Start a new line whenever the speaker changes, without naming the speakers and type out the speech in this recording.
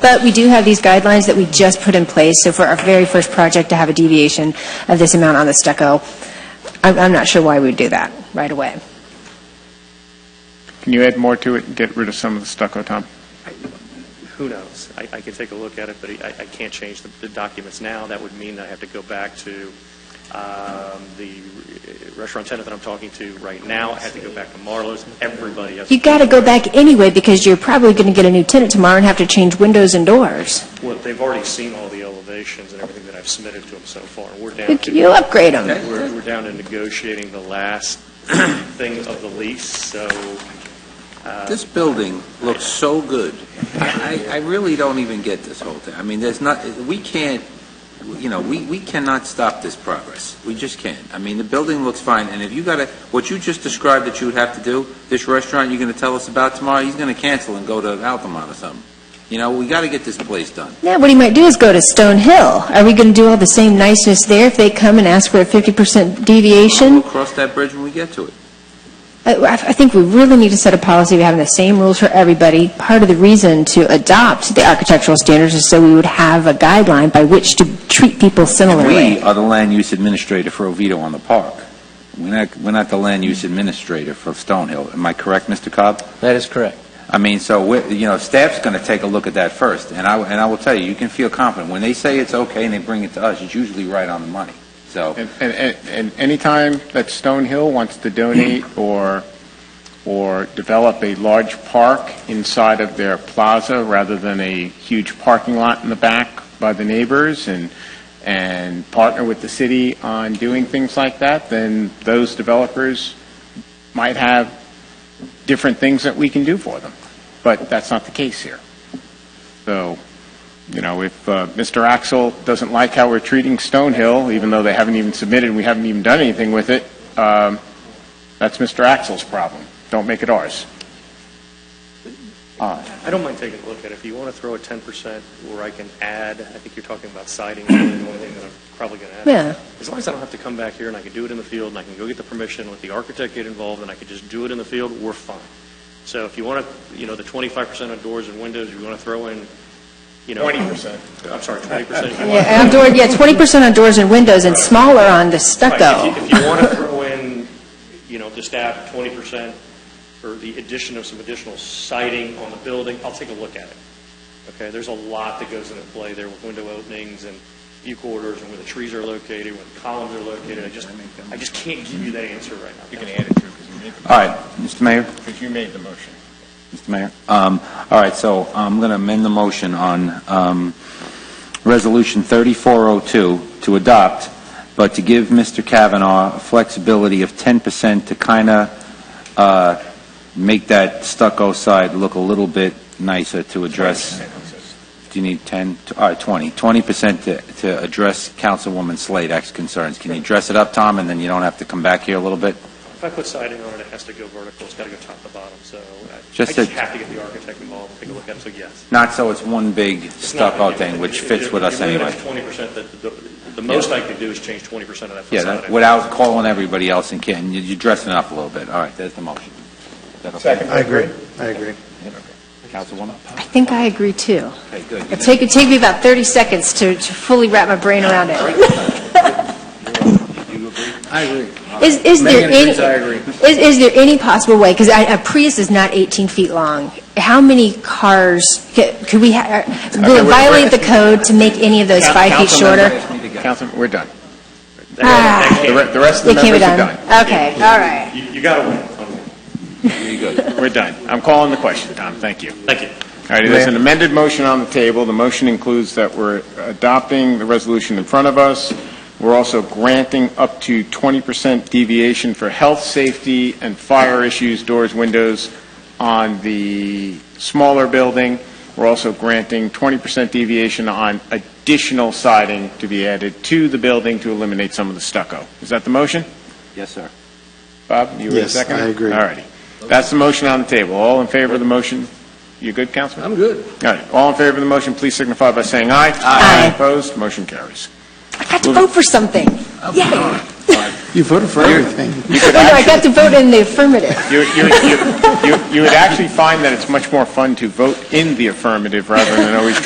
But we do have these guidelines that we just put in place, so for our very first project to have a deviation of this amount on the stucco, I'm, I'm not sure why we'd do that right away.
Can you add more to it and get rid of some of the stucco, Tom?
Who knows? I, I can take a look at it, but I, I can't change the, the documents now. That would mean I have to go back to, um, the restaurant tenant that I'm talking to right now. I have to go back to Marlowe's. Everybody has.
You got to go back anyway, because you're probably going to get a new tenant tomorrow and have to change windows and doors.
Well, they've already seen all the elevations and everything that I've submitted to them so far. We're down
But
to.
You'll upgrade them.
We're, we're down to negotiating the last thing of the lease, so,
This building looks so good. I, I I really don't even get this whole thing. I mean, there's not, we can't, you know, we, we cannot stop this progress. We just can't. I mean, the building looks fine, and if you gotta, what you just described that you would have to do, this restaurant you're gonna tell us about tomorrow, he's gonna cancel and go to Altamont or something. You know, we gotta get this place done.
Now, what he might do is go to Stone Hill. Are we going to do all the same niceness there if they come and ask for a 50% deviation?
We'll cross that bridge when we get to it.
I- I I think we really need to set a policy of having the same rules for everybody. Part of the reason to adopt the architectural standards is so we would have a guideline by which to treat people
We
similarly.
are the land use administrator for Oviedo on the park. We're not, we're not the land use administrator for Stonehill. Am I correct, Mr. Cobb?
That is correct.
I mean, so, we're- you know, staff's going to take a look at that first, and I, and I will tell you, you can feel confident. When they say it's okay and they bring it to us, it's usually right on the money. So,
And, and- and, and anytime that Stone Hill wants to donate or, or develop a large park inside of their plaza rather than a huge parking lot in the back by the neighbors and, and partner with the city on doing things like that, then those developers might have different things that we can do for them. But that's not the case here. So, you know, if uh, Mr. Axel doesn't like how we're treating Stonehill, even though they haven't even submitted, we haven't even done anything with it, um, that's Mr. Axel's problem. Don't make it ours.
I don't mind taking a look at it. If you want to throw a ten percent where I can add, I think you're talking about siding, the only thing that I'm probably going to add.
Yeah.
As long as I don't have to come back here and I can do it in the field and I can go get the permission, let the architect get involved and I can just do it in the field, we're fine. So if you want to, you know, the twenty-five percent on doors and windows, if you want to throw in, you know. Twenty percent. I'm sorry, twenty percent.
Yeah, and door- yeah, 20% on doors and windows and smaller on the stucco.
Right, If you- if you want to throw in, you know, just add 20% or the addition of some additional siding on the building, I'll take a look at it. Okay, there's a lot that goes into play there with window openings and view corridors and where the trees are located, where the columns are located. I just, I just can't give you that answer right now.
add it too, because you made,
all right, Mr. Mayor?
because you made the motion.
Mr. Mayor? Um, All right, so I'm going to amend the motion on um, Resolution 3402 to adopt, but to give Mr. Kavanaugh flexibility of 10% to kind of make that stucco side look a little bit nicer to address. Do you need 10? All right, 20. 20% to- to address Councilwoman Slade's concerns. Can you dress it up, Tom, and then you don't have to come back here a little bit?
If I put siding on it, it has to go vertical, it's got to go top to bottom, so I- I
Just
just
a-
have to get the architect involved and take a look at it, so yes.
Not so it's one big
It's not gonna
stucco
be-
thing, which
if-
fits
if-
with
if
us
you limit
anyway.
it to 20%, the- the- the most I could do is change 20% of that
Yeah,
facade.
that- without calling everybody else and can, you- you're dressing up a little bit. All right, there's the motion. Is that okay?
I agree, I agree.
Councilwoman?
I think I agree, too.
Okay, good.
It'll take, it'll take me about 30 seconds to to fully wrap my brain around it.
You agree?
I agree.
Is, is there
Megan
any,
agrees, I agree.
is, is there any possible way, because a Prius is not 18 feet long, how many cars, ca- could we, ha- uh, will it
we're-
violate the code to make any of those five feet shorter?
Councilman, we're done.
Ah.
The re- the rest
They
of the
can't be
members are
done?
done.
Okay, all right.
You got to win on that.
Pretty good.
We're done. I'm calling the question, Tom. Thank you.
Thank you.
All right, there's an amended motion on the table. The motion includes that we're adopting the resolution in front of us. We're also granting up to 20% deviation for health, safety, and fire issues, doors, windows on the smaller building. We're also granting 20% deviation on additional siding to be added to the building to eliminate some of the stucco. Is that the motion?
Yes, sir.
Bob, you were
Yes,
second?
I agree.
All righty. That's the motion on the table. All in favor of the motion? You good, Councilman?
I'm good.
All right, all in favor of the motion, please signify by saying aye.
Aye.
Opposed, motion carries.
I got to vote for something. Yay. Oh,
You voted for everything.
no, I got to vote in the affirmative.
You, you, you, you- you would actually find that it's much more fun to vote in the affirmative rather than always